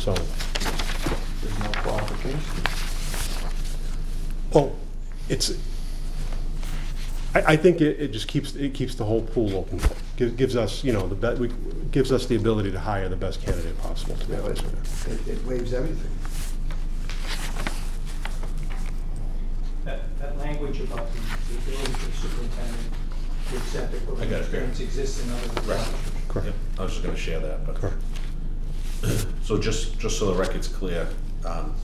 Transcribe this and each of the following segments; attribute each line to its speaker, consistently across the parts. Speaker 1: so,
Speaker 2: There's no qualification.
Speaker 1: well, it's, I, I think it, it just keeps, it keeps the whole pool open. Gives, gives us, you know, the, be- we- gives us the ability to hire the best candidate possible, to be
Speaker 2: That was-
Speaker 1: honest with you.
Speaker 2: It it waives everything.
Speaker 3: That, that language about the the ability for the superintendent to accept
Speaker 4: I
Speaker 3: equipment
Speaker 4: got it here.
Speaker 3: experience exists in other
Speaker 4: Right.
Speaker 3: jurisdictions.
Speaker 1: Correct.
Speaker 4: Yep, I was just gonna share that, but,
Speaker 1: Correct.
Speaker 4: so just, just so the record's clear, um,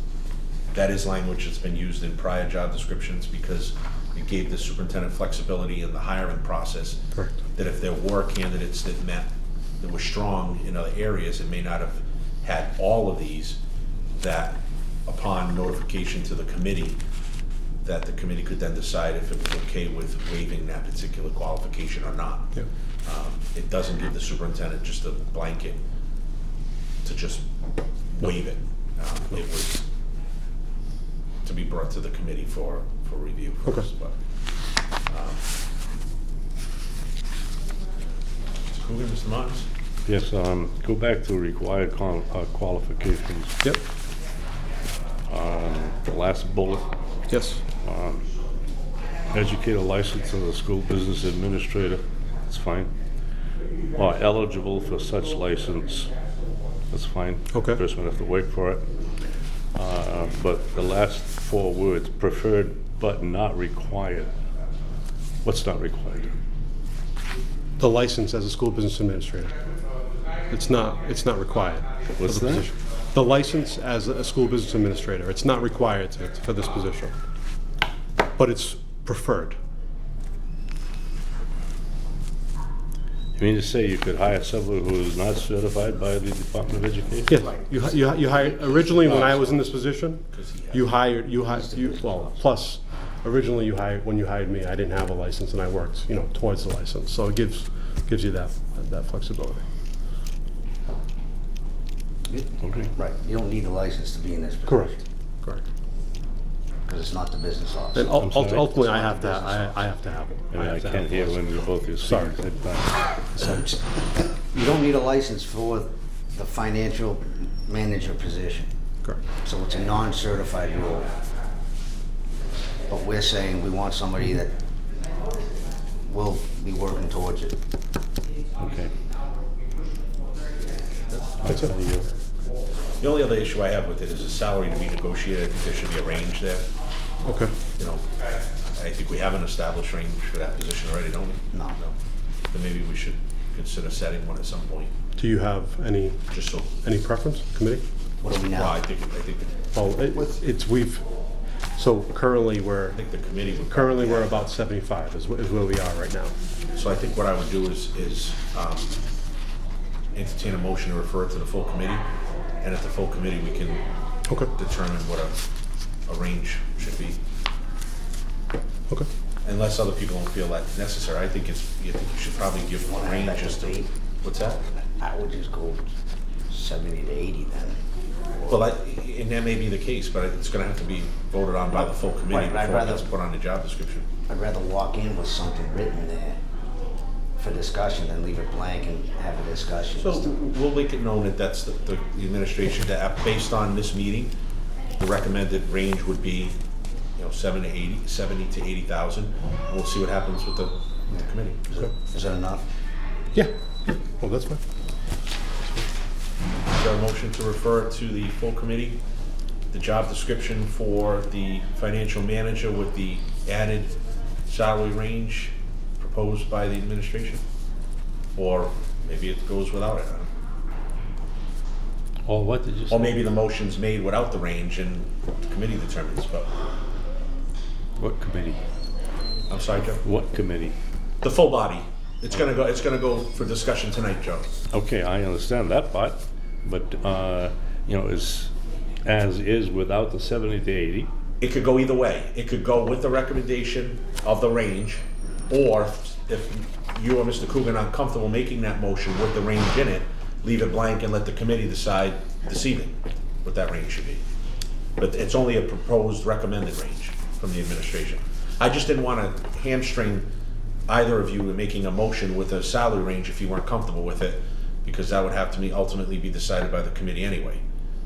Speaker 4: that is language that's been used in prior job descriptions because it gave the superintendent flexibility in the hiring process.
Speaker 1: Correct.
Speaker 4: That if there were candidates that met, that were strong in other areas and may not have had all of these, that upon notification to the committee, that the committee could then decide if it was okay with waiving that particular qualification or not.
Speaker 1: Yeah.
Speaker 4: Um, It doesn't give the superintendent just a blanket to just waive it. Um, It was to be brought to the committee for, for review first, but. um, Mr. Coogan, Mr. Martins?
Speaker 5: Yes, um, go back to required qual- uh, qualifications, Um,
Speaker 1: Yep,
Speaker 5: the last bullet.
Speaker 6: Yes.
Speaker 5: Educator license of the school business administrator, that's fine. Or eligible for such license, that's fine.
Speaker 1: Okay.
Speaker 5: Person have to wait for it. Uh, But the last four words, preferred but not required. What's not required?
Speaker 1: the license as a school business administrator. It's not, it's not required. for
Speaker 5: What's
Speaker 1: the
Speaker 5: that?
Speaker 1: position. The license as a school business administrator, it's not required to- for this position, but it's preferred.
Speaker 5: You mean to say you could hire someone who is not certified by the Department of Education?
Speaker 1: Yes, you, hi- you hi- you hired, originally, when I was in this position, you hired, you hired, you, well, plus, originally you hired, when you hired me, I didn't have a license and I worked, you know, towards the license, so it gives, gives you that, that flexibility.
Speaker 5: Okay.
Speaker 6: Right, you don't need a license to be in this position.
Speaker 1: Correct.
Speaker 6: Because it's not the business
Speaker 1: And
Speaker 6: officer.
Speaker 1: ul-
Speaker 5: sorry.
Speaker 1: ultimately, I have to, I, I have to have it.
Speaker 5: I mean, I
Speaker 1: have to
Speaker 5: can't
Speaker 1: have
Speaker 5: hear
Speaker 1: it.
Speaker 5: when you're both your
Speaker 1: Sorry.
Speaker 5: seats at times.
Speaker 6: You don't need a license for the financial manager position.
Speaker 1: Correct.
Speaker 6: So it's a non-certified role. But we're saying we want somebody that will be working towards it.
Speaker 5: Okay.
Speaker 1: That's it.
Speaker 4: The only other issue I have with it is the salary to be negotiated. I think there should be a range there,
Speaker 1: Okay.
Speaker 4: you know. I think we have an established range for that position already, don't we?
Speaker 6: No.
Speaker 4: Then maybe we should consider setting one at some point,
Speaker 1: Do you have any,
Speaker 4: just so,
Speaker 1: any preference, committee?
Speaker 6: What do we
Speaker 4: well, I
Speaker 6: now?
Speaker 4: think, I think, I
Speaker 1: Oh, it- it's, we've, so currently, we're,
Speaker 4: think the committee would.
Speaker 1: currently, we're about seventy-five is wh- is where we are right now.
Speaker 4: So I think what I would do is, is um, entertain a motion to refer it to the full committee, and at the full committee, we can
Speaker 1: Okay,
Speaker 4: determine what a, a range should be,
Speaker 1: okay.
Speaker 4: unless other people don't feel that's necessary. I think it's, you think you should probably give a range as to, what's that?
Speaker 6: I would just go seventy to eighty then.
Speaker 4: Well, I, and that may be the case, but it's gonna have to be voted on by the full committee
Speaker 6: Right, I'd
Speaker 4: before it
Speaker 6: rather-
Speaker 4: gets put on the job description.
Speaker 6: I'd rather walk in with something written there for discussion than leave it blank and have a discussion.
Speaker 4: So we'll make it known that that's the, the the administration, that uh, based on this meeting, the recommended range would be, you know, seven to eighty, seventy to eighty thousand. And we'll see what happens with the with the committee.
Speaker 6: Is it- Is that enough?
Speaker 1: Yeah, well, that's fine.
Speaker 4: Is there a motion to refer to the full committee, the job description for the financial manager with the added salary range proposed by the administration? Or maybe it goes without it, I don't know.
Speaker 5: Or what did you say?
Speaker 4: Or maybe the motion's made without the range and the committee determines, but,
Speaker 5: What committee?
Speaker 4: I'm sorry, Joe.
Speaker 5: What committee?
Speaker 4: The full body. It's gonna go, it's gonna go for discussion tonight, Joe.
Speaker 5: Okay, I understand that part, but, uh, you know, is, as is without the seventy to eighty,
Speaker 4: It could go either way. It could go with the recommendation of the range, or if you or Mr. Coogan aren't comfortable making that motion with the range in it, leave it blank and let the committee decide this evening what that range should be. But it's only a proposed recommended range from the administration. I just didn't wanna hamstring either of you in making a motion with a salary range if you weren't comfortable with it, because that would have to be ultimately be decided by the committee anyway.